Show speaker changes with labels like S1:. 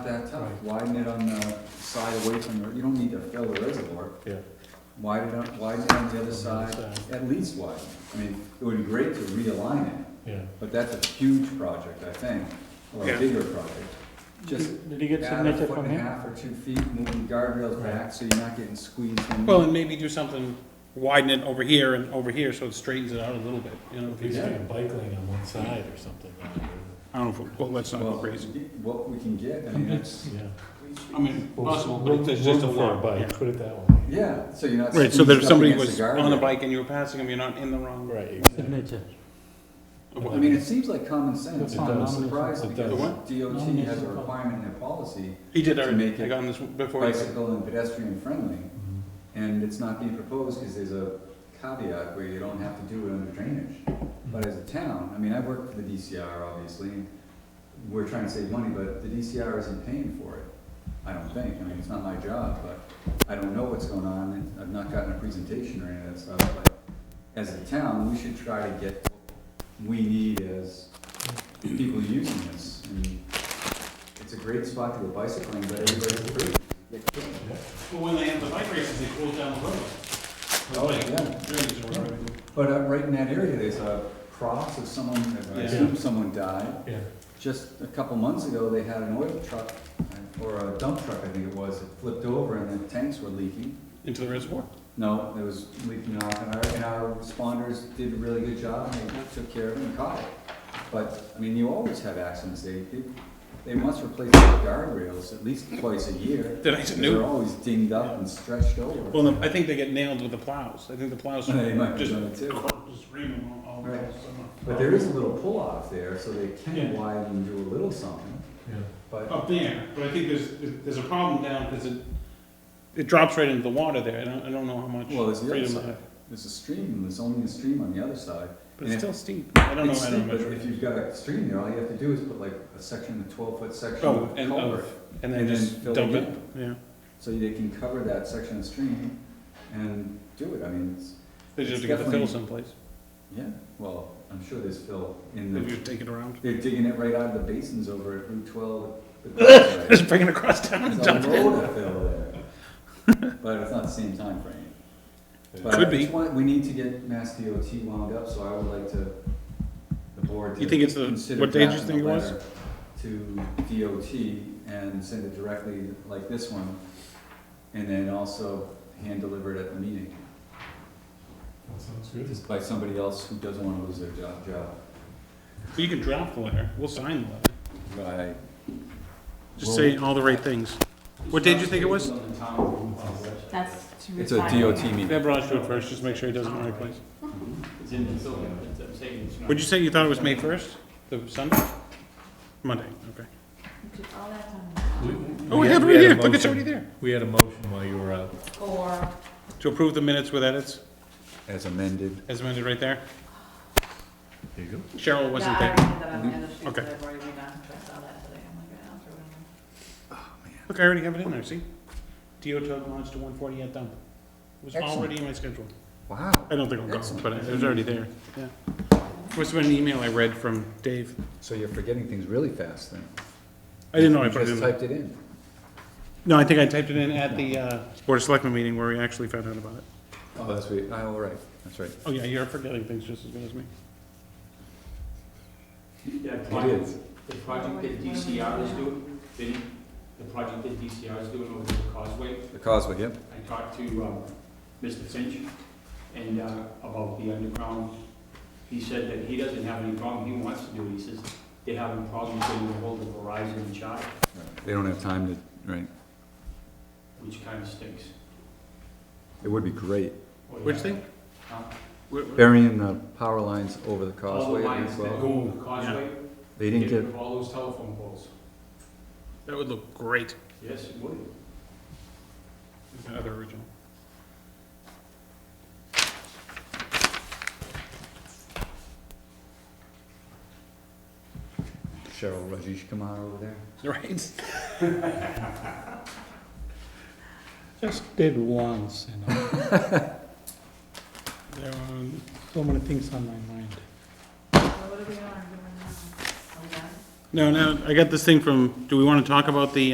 S1: that tough,
S2: Right.
S1: widen it on the side away from, the you don't need to fill the reservoir.
S2: Yeah.
S1: Widen it, up- widen it on the other side,
S2: side.
S1: at least widen. I mean, it would be great to realign it,
S2: Yeah.
S1: but that's a huge project, I think, or a
S3: Yeah.
S1: bigger project. Just
S4: Did did he get
S1: add a
S4: signature
S1: foot
S4: from
S1: and a
S4: him?
S1: half or two feet, moving guardrails back, so you're not getting squeezed in.
S3: Well, and maybe do something, widen it over here and over here, so it straightens it out a little bit, you know? if
S2: At least
S3: you-
S2: do a bike lane on one side or something.
S3: I don't know, if- well, let's not go
S1: Well,
S3: crazy.
S1: What we can get, I mean, that's,
S2: Yeah.
S3: I mean, possible,
S2: Room-
S3: but it's just a
S2: room for
S3: lot,
S2: bike,
S3: yeah.
S2: Put it that way.
S1: yeah, so you're not
S3: Right,
S1: squeezed
S3: so that if
S1: up
S3: somebody
S1: against
S3: was
S1: the
S3: on a
S1: guardrail.
S3: bike and you were passing them, you're not in the wrong.
S2: Right. exactly.
S4: Signature.
S1: I mean, it seems like common sense,
S2: It
S1: I'm
S2: does.
S1: surprised
S2: It
S1: because
S2: does.
S1: DOT has a
S4: Nomination for-
S1: requirement in their policy,
S3: He did
S1: To
S3: already,
S1: make
S3: I
S1: it
S3: got on this before. he-
S1: bicycle and pedestrian friendly,
S2: Mhm.
S1: and it's not being proposed because there's a caveat where you don't have to do it under drainage. But as a town, I mean, I work for the DCR, obviously, and we're trying to save money, but the DCR isn't paying for it, I don't think, I mean, it's not my job, but I don't know what's going on, and I've not gotten a presentation or any of that stuff, but as a town, we should try to get what we need as people using this, and it's a great spot to go bicycling, but everybody's free. They can't.
S3: Well, when they have the bike races, they close down the road.
S1: Oh, yeah.
S3: Drainage or whatever.
S1: But uh, right in that area, there's a cross of someone, I
S3: Yeah.
S1: assume someone died.
S2: Yeah.
S1: Just a couple months ago, they had an oil truck, uh, or a dump truck, I think it was, it flipped over and the tanks were leaking.
S3: Into the reservoir.
S1: No, it was leaking off, and our, and our responders did a really good job, and they took care of it and caught it. But, I mean, you always have accidents, they, they- they must replace the guardrails at least twice a year.
S3: Did I say
S1: They're
S3: new?
S1: always dinged up and stretched over.
S3: Well, no, I think they get nailed with the plows. I think the plows.
S1: They might be
S3: just-
S1: doing it too.
S3: just screaming all- all
S1: Right.
S3: summer.
S1: But there is a little pull-off there, so they can
S3: Yeah. Oh.
S1: widen and do a little something,
S2: Yeah.
S1: but,
S3: up there, but I think there's, there's a problem down, because it, it drops right into the water there, I don't, I don't know how much
S1: well, there's the other
S3: freedom I
S1: side.
S3: have.
S1: There's a stream, there's only a stream on the other side.
S3: But
S1: And
S3: it's still steep, I don't know,
S1: It's
S3: I don't
S1: steep, but
S3: measure
S1: If
S3: it.
S1: you've got a stream there, all you have to do is put like a section, a twelve-foot section
S3: Oh,
S1: of
S3: and
S1: culvert.
S3: of, and then
S1: and then
S3: just
S1: fill it
S3: dump it,
S1: in.
S3: yeah.
S1: So they can cover that section of stream and do it, I mean, it's,
S3: They just
S1: It's
S3: have to get the fill
S1: definitely-
S3: someplace,
S1: yeah, well, I'm sure there's fill in
S3: they
S1: the,
S3: just take it around.
S1: they're digging it right out of the basins over at Route twelve. There's
S3: Just bring it across town and
S1: a
S3: dump it.
S1: load of fill there, but it's not the same time frame. But
S3: Could
S1: I
S3: be.
S1: just want- We need to get Mass DOT wound up, so I would like to, the board to.
S3: You think it's the-
S1: consider
S3: what day did you
S1: drafting
S3: think
S1: a
S3: it was?
S1: letter To DOT and send it directly like this one, and then also hand deliver it at the meeting,
S2: That sounds good.
S1: just by somebody else who doesn't wanna lose their job, job.
S3: You can draft the letter, we'll sign the letter,
S1: Right.
S3: just say all the right things. What day did you think it was? Oh,
S5: That's to
S1: It's a
S5: retire.
S1: DOT meeting.
S3: Have Raj do it first, just make sure he does it in the right place.
S6: It's in the building, it's upstairs. It's not-
S3: Would you say you thought it was May first, the Sunday? Monday, okay.
S5: You did all that on
S3: Oh, we have it right here, look, it's already there.
S2: We had a motion while you were out.
S5: Or
S3: To approve the minutes with edits,
S1: As amended.
S3: as amended right there.
S2: There you go.
S3: Cheryl
S5: the
S3: wasn't there.
S5: irony that I'm in the street
S3: Okay.
S5: that I've already been on, because I saw that today, I'm like, I'll throw it in.
S3: Look, I already have it in there, see? DO tug launch to one forty at dump. It was
S1: Excellent.
S3: already in my schedule.
S1: Wow.
S3: I don't think I'll go,
S1: Excellent.
S3: but it was already there, yeah. Must've been an email I read from Dave.
S1: So you're forgetting things really fast then?
S3: I didn't know I
S1: You
S3: put it in.
S1: Just
S3: there.
S1: typed it in.
S3: No, I think I typed it in at the, uh, Board of Selectmen meeting where we actually found out about it.
S1: Oh, that's right, oh, all right, that's right.
S3: Oh, yeah, you're forgetting things just as good as me.
S6: That
S1: It
S6: project,
S1: is.
S6: the project that DCR is doing, the, the project that DCR is doing over the causeway,
S1: The causeway, yep.
S6: I talked to, um, Mr. Finch and, uh, about the underground. He said that he doesn't have any problem, he wants to do it, he says they're having problems getting ahold of Verizon and Charter,
S1: They don't have time to, right,
S6: which kind of stinks.
S1: it would be great.
S6: Oh, yeah.
S3: Which thing?
S6: Huh?
S3: Where- where-
S1: Burying the power lines over the
S6: All the
S1: causeway
S6: lines
S1: as
S6: that
S1: well.
S6: go over the causeway,
S1: They
S6: get
S1: didn't
S6: rid
S1: get,
S6: of all those telephone poles.
S3: That would look great.
S6: Yes, it would.
S3: Another original.
S1: Cheryl Rajesh Kumar over there.
S3: Right. Just did once, you know. There were so many things on my mind.
S5: So what are we on, We're on- are we done?
S3: No, no, I got this thing from, do we want to talk about the